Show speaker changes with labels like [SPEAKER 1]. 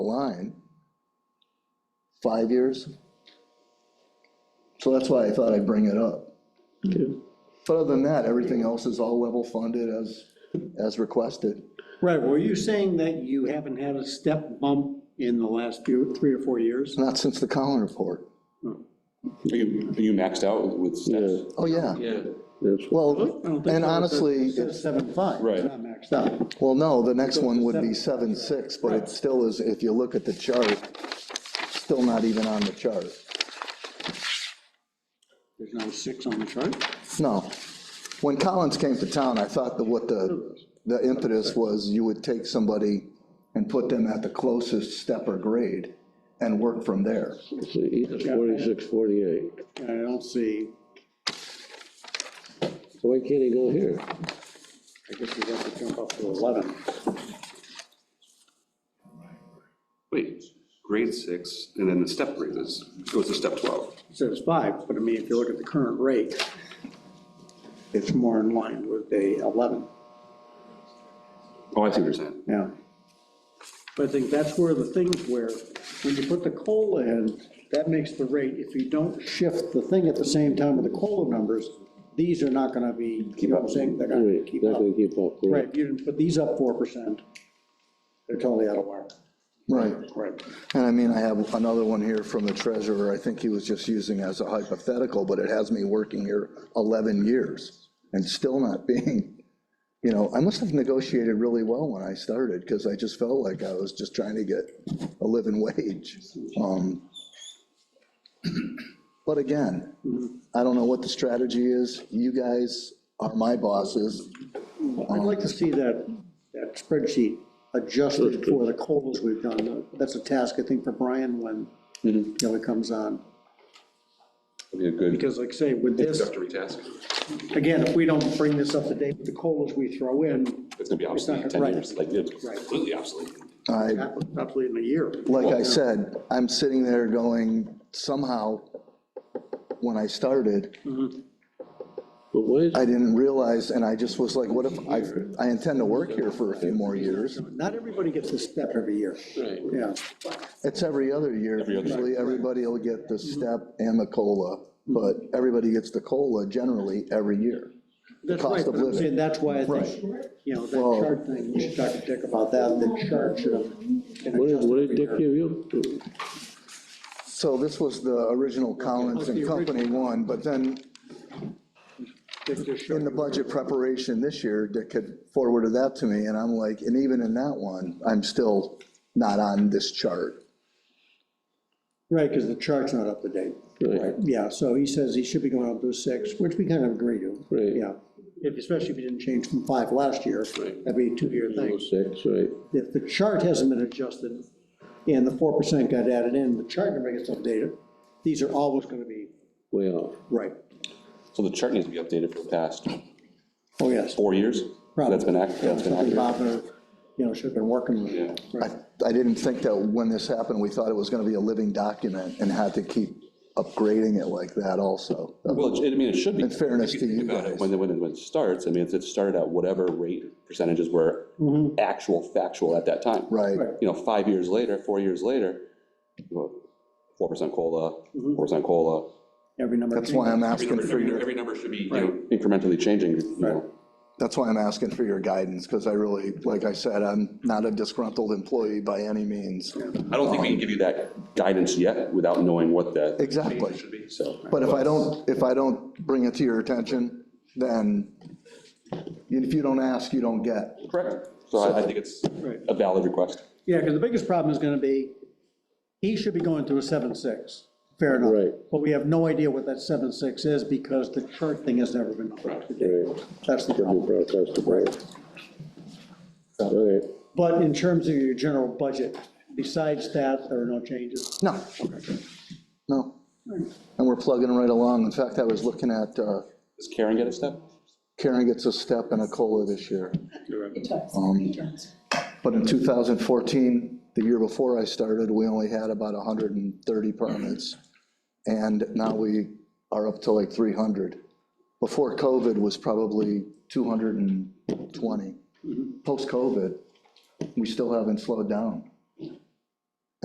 [SPEAKER 1] line, five years. So that's why I thought I'd bring it up. But other than that, everything else is all level funded as, as requested.
[SPEAKER 2] Right, were you saying that you haven't had a step bump in the last few, three or four years?
[SPEAKER 1] Not since the Collin report.
[SPEAKER 3] Are you, are you maxed out with- with steps?
[SPEAKER 1] Oh, yeah.
[SPEAKER 3] Yeah.
[SPEAKER 4] That's,
[SPEAKER 1] Well, and honestly,
[SPEAKER 2] Seven five.
[SPEAKER 3] Right.
[SPEAKER 2] Not maxed out.
[SPEAKER 1] well, no, the next one would be seven, six, but it still is, if you look at the chart, still not even on the chart.
[SPEAKER 2] There's no six on the chart.
[SPEAKER 1] No. When Collins came to town, I thought that what the, the impetus was, you would take somebody and put them at the closest step or grade and work from there.
[SPEAKER 4] see, he's forty-six, forty-eight.
[SPEAKER 2] I don't see,
[SPEAKER 4] So why can't he go here?
[SPEAKER 2] I guess we have to jump up to 11.
[SPEAKER 5] Wait, grade six, and then the step grade is, goes to step 12.
[SPEAKER 2] It says five, but I mean, if you look at the current rate, it's more in line with the 11.
[SPEAKER 5] Oh, I see what you're saying.
[SPEAKER 2] Yeah. But I think that's where the things where, when you put the COLA in, that makes the rate, if you don't shift the thing at the same time with the COLA numbers, these are not gonna be, you know what I'm saying, they're not gonna
[SPEAKER 4] Right,
[SPEAKER 2] keep
[SPEAKER 4] not
[SPEAKER 2] up.
[SPEAKER 4] gonna keep up.
[SPEAKER 2] Right, if you didn't put these up four percent, they're totally out of whack.
[SPEAKER 1] Right.
[SPEAKER 2] Right.
[SPEAKER 1] And I mean, I have another one here from the treasurer. I think he was just using as a hypothetical, but it has me working here 11 years and still not being, you know, I must have negotiated really well when I started because I just felt like I was just trying to get a living wage. Um, But again, I don't know what the strategy is. You guys are my bosses.
[SPEAKER 2] I'd like to see that, that spreadsheet adjusted for the COLAs we've done. That's a task, I think, for Brian when, you know, he comes on.
[SPEAKER 3] Would be a good,
[SPEAKER 2] Because like I say, with this,
[SPEAKER 5] Introductory task,
[SPEAKER 2] again, if we don't bring this up to date with the COLAs we throw in,
[SPEAKER 3] it's gonna be obsolete in ten
[SPEAKER 2] right.
[SPEAKER 3] years, like, it's
[SPEAKER 2] Right.
[SPEAKER 3] completely obsolete.
[SPEAKER 1] I
[SPEAKER 2] probably in a year.
[SPEAKER 1] like I said, I'm sitting there going, somehow, when I started,
[SPEAKER 4] But why is,
[SPEAKER 1] I didn't realize, and I just was like, what if, I, I intend to work here for a few more years.
[SPEAKER 2] Not everybody gets a step every year.
[SPEAKER 3] Right.
[SPEAKER 2] Yeah,
[SPEAKER 1] It's every other year,
[SPEAKER 3] other year.
[SPEAKER 1] usually everybody will get the step and the COLA, but everybody gets the COLA generally every year.
[SPEAKER 2] that's
[SPEAKER 1] cost
[SPEAKER 2] right,
[SPEAKER 1] of
[SPEAKER 2] but I'm
[SPEAKER 1] living.
[SPEAKER 2] saying that's why I think, you know, that
[SPEAKER 1] Well-
[SPEAKER 2] chart thing, you should talk to Dick about that, the chart should have. been
[SPEAKER 4] what did, what did
[SPEAKER 2] adjusted
[SPEAKER 4] Dick
[SPEAKER 2] every year.
[SPEAKER 4] give you?
[SPEAKER 1] So this was the original Collins and Company one, but then
[SPEAKER 2] Dick just showed
[SPEAKER 1] in the
[SPEAKER 2] you.
[SPEAKER 1] budget preparation this year, Dick had forwarded that to me, and I'm like, and even in that one, I'm still not on this chart.
[SPEAKER 2] Right, because the chart's not up to date.
[SPEAKER 4] Right.
[SPEAKER 2] Yeah, so he says he should be going up to six, which we kind of agree to.
[SPEAKER 4] Right.
[SPEAKER 2] Yeah, If- especially if you didn't change from five last year, that'd be a two-year thing.
[SPEAKER 4] Oh, Six, right.
[SPEAKER 2] If the chart hasn't been adjusted and the four percent got added in, the chart number gets updated, these are always gonna be
[SPEAKER 4] Way off.
[SPEAKER 2] right.
[SPEAKER 3] So the chart needs to be updated for the past
[SPEAKER 2] Oh, yes.
[SPEAKER 3] four years? That's been accurate, that's been
[SPEAKER 2] Something
[SPEAKER 3] accurate.
[SPEAKER 2] Bob, uh, you know, should have been working with.
[SPEAKER 3] Yeah.
[SPEAKER 1] I, I didn't think that when this happened, we thought it was gonna be a living document and had to keep upgrading it like that also.
[SPEAKER 3] Well, it- I mean, it should be.
[SPEAKER 1] In fairness to you
[SPEAKER 3] About it,
[SPEAKER 1] guys.
[SPEAKER 3] When, it- when it- when it starts, I mean, it's- it started at whatever rate percentages were actual factual at that time.
[SPEAKER 1] Mm-hmm. Right,
[SPEAKER 2] Right.
[SPEAKER 3] You know, five years later, four years later, four percent COLA,
[SPEAKER 1] Mm-hmm.
[SPEAKER 3] four percent COLA,
[SPEAKER 2] Every number.
[SPEAKER 1] that's why I'm asking for
[SPEAKER 5] every,
[SPEAKER 1] your,
[SPEAKER 5] every number should be, you know,
[SPEAKER 3] incrementally changing, you know.
[SPEAKER 1] that's why I'm asking for your guidance, because I really, like I said, I'm not a disgruntled employee by any means.
[SPEAKER 3] I don't think we can give you that guidance yet without knowing what that,
[SPEAKER 1] Exactly.
[SPEAKER 5] should be.
[SPEAKER 3] so.
[SPEAKER 1] But if I don't, if I don't bring it to your attention, then if you don't ask, you don't get.
[SPEAKER 3] Correct. So I, I think it's a valid request.
[SPEAKER 2] Yeah, because the biggest problem is gonna be, he should be going through a seven-six, fair enough.
[SPEAKER 4] Right.
[SPEAKER 2] But we have no idea what that seven-six is because the chart thing has never been updated.
[SPEAKER 4] Right.
[SPEAKER 2] That's the
[SPEAKER 4] Could be
[SPEAKER 2] problem.
[SPEAKER 4] broadcast to break. All right,
[SPEAKER 2] But in terms of your general budget, besides that, there are no changes.
[SPEAKER 1] No, no. And we're plugging right along. In fact, I was looking at, uh,
[SPEAKER 3] Does Karen get a step?
[SPEAKER 1] Karen gets a step and a COLA this year.
[SPEAKER 6] It does,
[SPEAKER 1] Um,
[SPEAKER 6] it does.
[SPEAKER 1] But in 2014, the year before I started, we only had about 130 permits. And now we are up to like 300. Before COVID was probably 220. Post-COVID, we still haven't slowed down.